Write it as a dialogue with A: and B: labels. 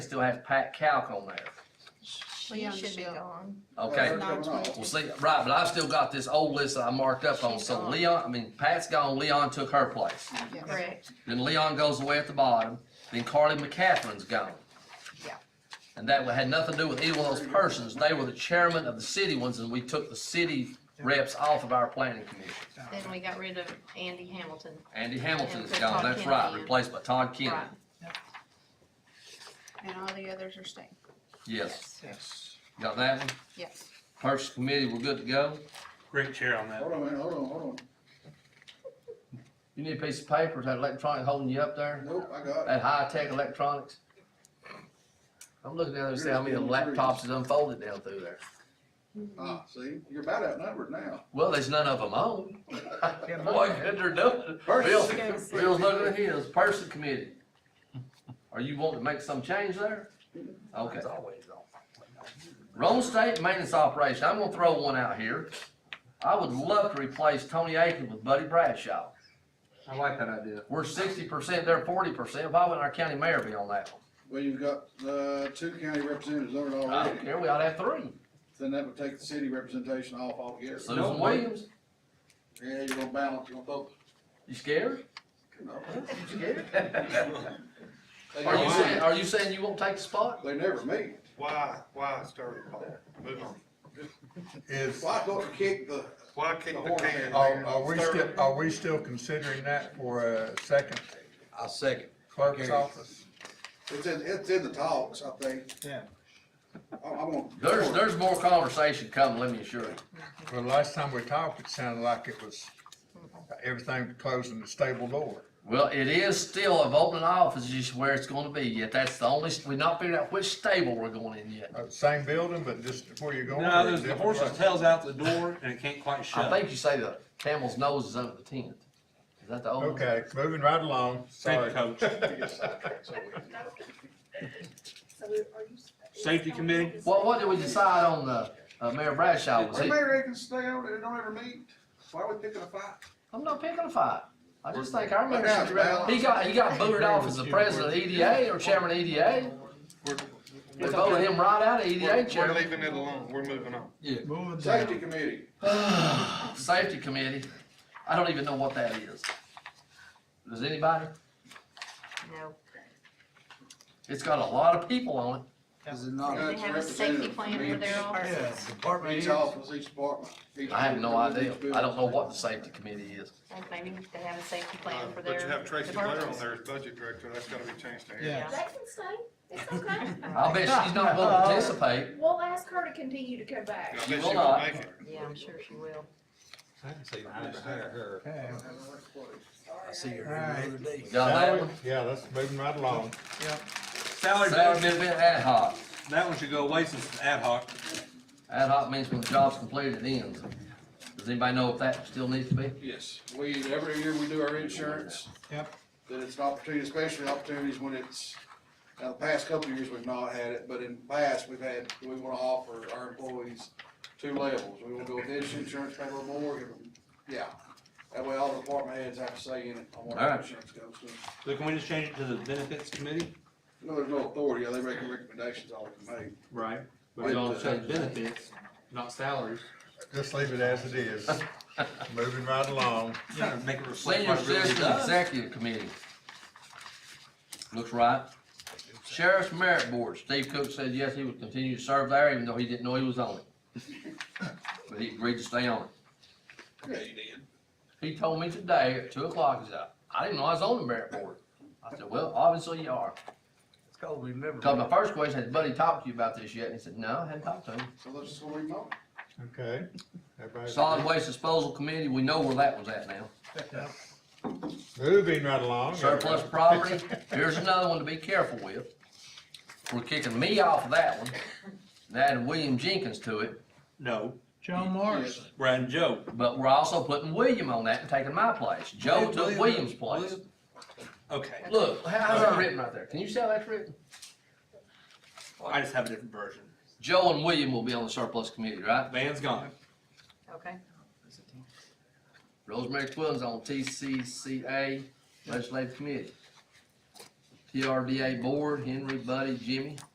A: still has Pat Calc on there.
B: She
C: She should be
B: understand.
C: gone.
A: Okay,
B: Nine twenty.
A: well, see, right, but I've still got this old list that I marked up on,
C: She's
A: so
C: gone.
A: Leon, I mean, Pat's gone, Leon took her place.
B: Yes.
C: Correct.
A: Then Leon goes away at the bottom, then Carly McCaffrey's gone.
B: Yeah.
A: And that had nothing to do with either one of those persons, they were the chairman of the city ones, and we took the city reps off of our planning commission.
C: Then we got rid of Andy Hamilton.
A: Andy Hamilton
C: And
A: is
C: put
A: gone,
C: Todd
A: that's
C: Kennedy
A: right,
C: in.
A: replaced by Todd Kennedy,
C: Right.
B: And all the others are staying.
A: yes,
D: Yes.
A: got that one?
B: Yes.
A: Purchase committee, we're good to go,
D: Great chair on that.
E: Hold on, man, hold on, hold
A: you need a piece of paper, is that electronic holding you up there?
E: on. Nope, I got it.
A: At high-tech electronics? I'm looking down there and see how many of the laptops is unfolded down through there.
E: Ah, see, you're about outnumbered now.
A: Well, there's none of them on. Boy, good they're doing. Bill,
E: Person.
A: Bill's looking at his person committee. Are you wanting to make some change there? Okay. Rome State Maintenance Operation, I'm gonna throw one out here. I would love to replace Tony Aiken with Buddy Bradshaw.
D: I like that idea.
A: We're sixty percent, they're forty percent. Why wouldn't our county mayor be on that one?
E: Well, you've got, uh, two county representatives on it
A: I don't
E: already,
A: care, we ought to have three.
E: then that would take the city representation off altogether.
A: Susan Williams,
E: Yeah, you're gonna balance, you're gonna focus.
A: you scared?
E: No.
A: You scared?
E: They
A: Are you
E: never-
A: saying, are you saying you won't take the spot?
E: They never meet.
F: Why, why start with Paul? Move on.
G: Is,
E: Why don't you kick the,
F: Why kick the can?
G: are, are we
F: Start-
G: still, Oh, are we still considering that for a second
H: I'll second.
G: clerk's office?
E: it's in, it's in the talks, I think.
G: Yeah.
E: I, I'm gonna.
A: There's, there's more conversation coming, let me assure you.
G: Well, last time we talked, it sounded like it was everything closing the stable door.
A: Well, it is still of opening office is where it's gonna be, yet that's the only, we not figured out which stable we're going in yet.
G: Uh, Same building, but just where you're going.
D: No,
G: or a
D: there's the
G: different
D: horse's
G: place?
D: tail's out the door and it can't quite
A: I
D: shut.
A: think you say the camel's nose is under the tent. Is that the old? one?
G: Okay, moving right along,
D: Thank
G: sorry.
D: you, coach. Safety committee?
A: What, what did we decide on the, uh, Mayor Bradshaw was
E: The
A: he?
E: mayor can stay on it, they don't ever meet. Why are we picking a fight?
A: I'm not picking a fight. I just think our mayor
E: Look out,
A: should, re-
E: pal.
A: he got, he got booted off as the president of EDA or chairman of EDA. They voted him right out of EDA
F: We're, we're
A: chairman.
F: leaving it alone. We're moving on.
E: Safety committee,
A: Safety committee, I don't even know what that is. Does anybody?
C: No.
A: It's got a lot of people on it.
H: Is it
F: Uh,
H: not?
C: They
E: That's
C: have a safety
E: representative
C: plan
E: from
C: for their
E: each-
C: office.
H: Department
E: each
H: heads.
E: office, each department. each
A: I have no idea.
E: building, each
A: I don't know what the safety committee is.
C: Like, Maybe they have a safety
F: Uh,
C: plan for their
F: But you have Tracy Blair on
C: departments.
F: there as budget director. That's gotta be changed to Andy.
C: Yeah.
I: They can stay, it's okay.
A: I'll bet she's not gonna participate.
I: We'll ask her to continue to come back.
F: I bet
A: You
F: she
A: will
F: won't
A: not.
F: make it.
C: Yeah, I'm sure she will.
H: I can see where to hire her.
G: Okay.
H: I see her every other day.
A: We Got that one?
G: Yeah, that's moving right along.
D: Salary,
A: Salary
D: that
A: benefit ad hoc.
D: one should go away since it's ad hoc.
A: Ad hoc means when the job's completed, it ends. Does anybody know if that still needs to be?
E: Yes, we, every year we do our insurance.
G: Yep.
E: Then it's an opportunity, especially opportunities when it's, now the past couple of years, we've not had it, but in the past, we've had, we wanna offer our employees two levels. We wanna go with this insurance, pay a little more, give them, yeah. That way all the department heads have a say in it on what
A: All
E: our
A: right.
E: insurance goes to.
D: So can we just change it to the benefits committee?
E: No, there's no authority, they make recommendations all they can make.
D: Right. But we all change benefits, not salaries.
G: Just leave it as it is. Moving right along.
D: Yeah, make it reflect
A: Senior
D: what it really
A: Citizen
D: does.
A: Executive Committee. Looks right. Sheriff's Merit Board, Steve Cook said yes, he would continue to serve there even though he didn't know he was on it. But he agreed to stay on it.
E: Yeah, you did.
A: He told me today at two o'clock, he said, I didn't know I was on the merit board. I said, well, obviously you are.
H: It's called remember.
A: Cause my first question, has Buddy talked to you about this yet? And he said, no, I hadn't talked to him.
E: So let's just go read them all.
G: Okay. Everybody-
A: Solid Waste Disposal Committee, we know where that one's at now.
G: Moving right along.
A: Surplus property, here's another one to be careful with. We're kicking me off of that one, and adding William Jenkins to it,
D: No,
H: John Morrison.
D: Brad and Joe.
A: but we're also putting William on that and taking my place. Joe took William's place. Uh-huh.
D: Okay,
A: Look, how- how's that written right there? Can you see how that's written?
D: I just have a different version.
A: Joe and William will be on the surplus committee, right?
D: Van's gone.
C: Okay.
A: Rosemary Quillen's on TCCA Legislative Committee. TRDA board, Henry, Buddy, Jimmy.